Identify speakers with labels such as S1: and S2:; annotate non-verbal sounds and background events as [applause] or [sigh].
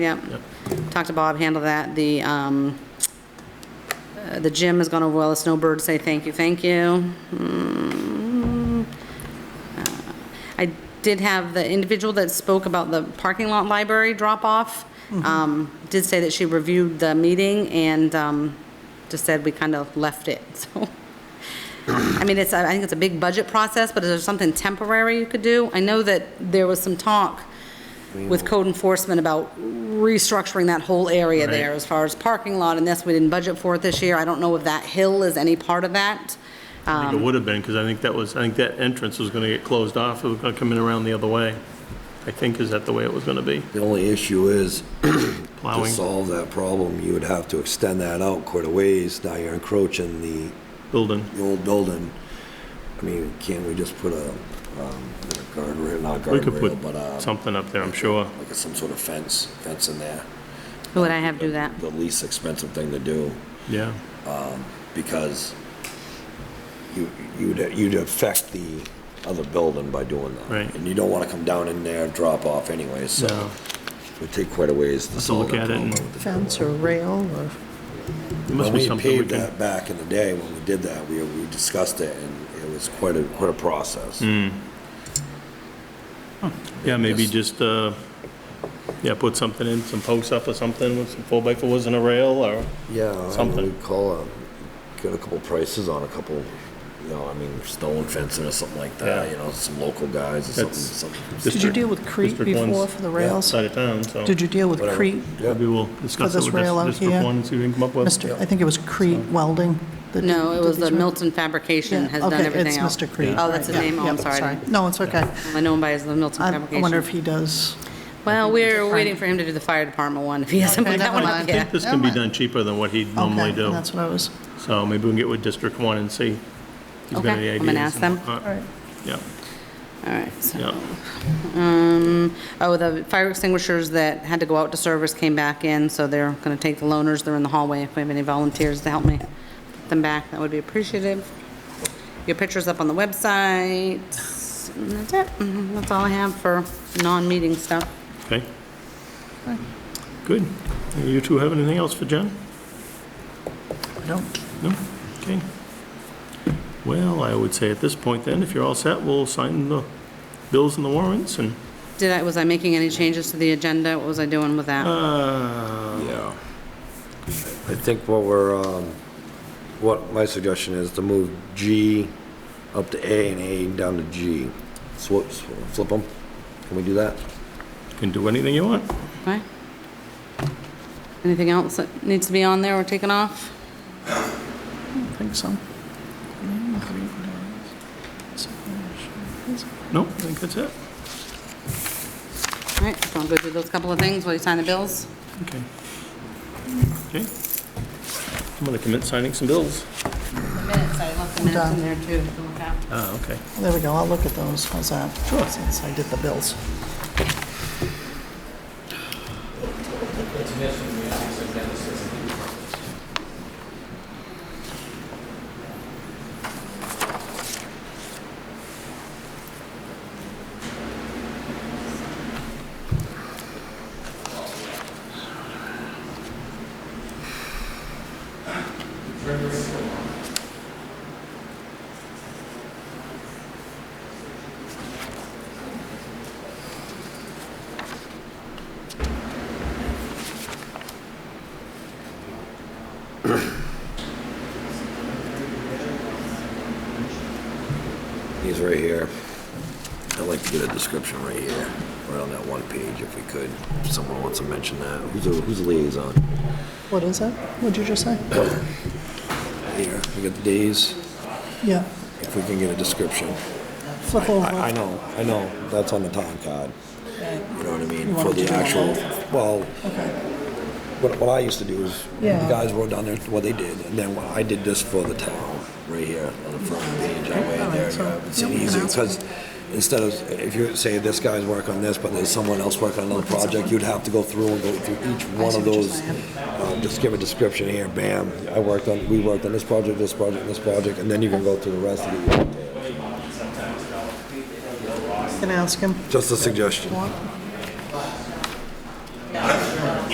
S1: Yep. Talked to Bob, handled that. The, um, uh, the gym is gonna, well, the snowbird say thank you, thank you. Mm. Uh, I did have the individual that spoke about the parking lot library drop-off, um, did say that she reviewed the meeting and, um, just said we kind of left it, [laughs] so. I mean, it's, I think it's a big budget process, but is there something temporary you could do? I know that there was some talk with code enforcement about restructuring that whole area there as far as parking lot and this, we didn't budget for it this year. I don't know if that hill is any part of that.
S2: I
S3: Um,
S2: think it would have been, because I think that was, I think that entrance was going to get closed off, it was going to come in around the other way. I think is that the way it was going to be,
S4: The only issue is, [clears throat] to
S2: plowing,
S4: solve that problem, you would have to extend that out quite a ways. Now you're encroaching the,
S2: building.
S4: the old building. I mean, can't we just put a, um, a guardrail, not
S2: We could
S4: guardrail, but,
S2: put
S4: um,
S2: something up there, I'm sure.
S4: like a- some sort of fence, fence in there?
S1: Who would I have do that?
S4: The least expensive thing to do,
S2: Yeah,
S4: because you, you'd, you'd affect the other building by doing that.
S2: Right.
S4: And you don't wanna come down in there, drop off anyway, so
S2: No.
S4: it would take quite a ways to
S2: to
S4: solve
S2: look
S4: that
S2: at it
S4: problem.
S2: and-
S4: with the
S3: fence
S4: building.
S3: or rail or,
S2: it must
S4: When
S2: be
S4: we
S2: something we
S4: paved
S2: can,
S4: that back in the day, when we did that, we, we discussed it, and it was quite a, quite a process.
S2: Mm. yeah, maybe just, uh, yeah, put something in, some posts up or something, with some four by fours and a rail, or,
S4: Yeah, I
S2: Something.
S4: would call, um, get a couple prices on a couple, you know, I mean, stone fencing or something like that,
S2: Yeah.
S4: you know, some local guys or something,
S2: That's-
S4: something.
S3: did you deal with Crete
S2: District one's
S3: before for the rails?
S2: Side of town, so.
S3: Did you deal with
S4: Whatever.
S3: Crete?
S4: Yeah.
S2: Maybe we'll discuss
S3: For
S2: it
S3: this
S2: with
S3: rail
S2: this
S3: out
S2: District
S3: here?
S2: One, and see what we can come up with.
S3: Mr., I think it was Crete Welding. that
S1: No, it
S3: did
S1: was
S3: these
S1: the
S3: rail-
S1: Milton Fabrication
S3: Yeah,
S1: has done
S3: okay,
S1: everything else.
S3: It's Mr. Crete.
S1: Oh, that's his
S3: right,
S1: name, oh,
S3: yeah,
S1: I'm
S3: yeah,
S1: sorry.
S3: No, it's okay.
S1: I know him by his, the Milton
S3: I I wonder if
S1: Fabrication.
S3: he does,
S1: Well, we're waiting for him to do the fire department one, if he hasn't put
S3: Okay,
S1: that one
S3: never
S1: up
S3: mind.
S2: I
S1: yet.
S2: think
S3: [laughs]
S2: this can be done cheaper than what he'd normally
S3: okay,
S2: do,
S3: that's what I was,
S2: so maybe we can get with District One and see. if he's got
S1: Okay,
S2: any
S1: I'm gonna
S2: ideas
S1: ask
S2: and
S1: them.
S2: whatnot.
S3: all right.
S2: Yeah,
S1: All right, so.
S2: yeah.
S1: Um, oh, the fire extinguishers that had to go out to service came back in, so they're going to take the loaners, they're in the hallway. If we have any volunteers to help me put them back, that would be appreciative. Your picture's up on the website. And that's it. Mhm, That's all I have for non-meeting stuff.
S2: Okay. Good. You two have anything else for Jen?
S3: I don't,
S2: No? Okay. Well, I would say at this point then, if you're all set, we'll sign the bills and the warrants and,
S1: Did I, was I making any changes to the agenda? What was I doing with that?
S2: uh,
S4: Yeah. I think what we're, um, what my suggestion is to move G up to A and A down to G. Swap, flip them. Can we do that?
S2: you can do anything you want.
S1: Okay. Anything else that needs to be on there or taken off?
S3: I don't think so.
S2: No, I think that's it.
S1: All right, so I'll go do those couple of things while you sign the bills.
S2: Okay. Okay. I'm gonna commit signing some bills.
S1: The minutes, I left the minutes in there too to look at.
S2: Ah, okay.
S3: There we go, I'll look at those, how's that? Sure. Since I did the bills.
S4: He's right here. I'd like to get a description right here, right on that one page if we could. If someone wants to mention that, who's the, who's the liaison?
S3: What is that? What'd you just say?
S4: Here, we got the days,
S3: Yeah,
S4: if we can get a description.
S3: flip over.
S4: I, I know, I know, that's on the time card. You know what I mean,
S3: You
S4: for
S3: want
S4: the
S3: to do one
S4: actual, well,
S3: Okay,
S4: what, what I used to do is, the
S3: Yeah.
S4: guys wrote down there what they did, and then I did this for the town, right here, on the front page, that way
S3: Alright,
S4: there, you
S3: so-
S4: know, it's
S3: yeah, we can
S4: easier,
S3: ask
S4: because instead of, if you say this guy's working on this, but there's someone else working on another project, you'd have to go through and go through each one
S3: see
S4: of
S3: what you're
S4: those.
S3: saying.
S4: um, Just give a description here, bam, I worked on, we worked on this project, this project, this project, and then you can go through the rest of it,
S3: can ask him.
S4: just a suggestion.
S3: What?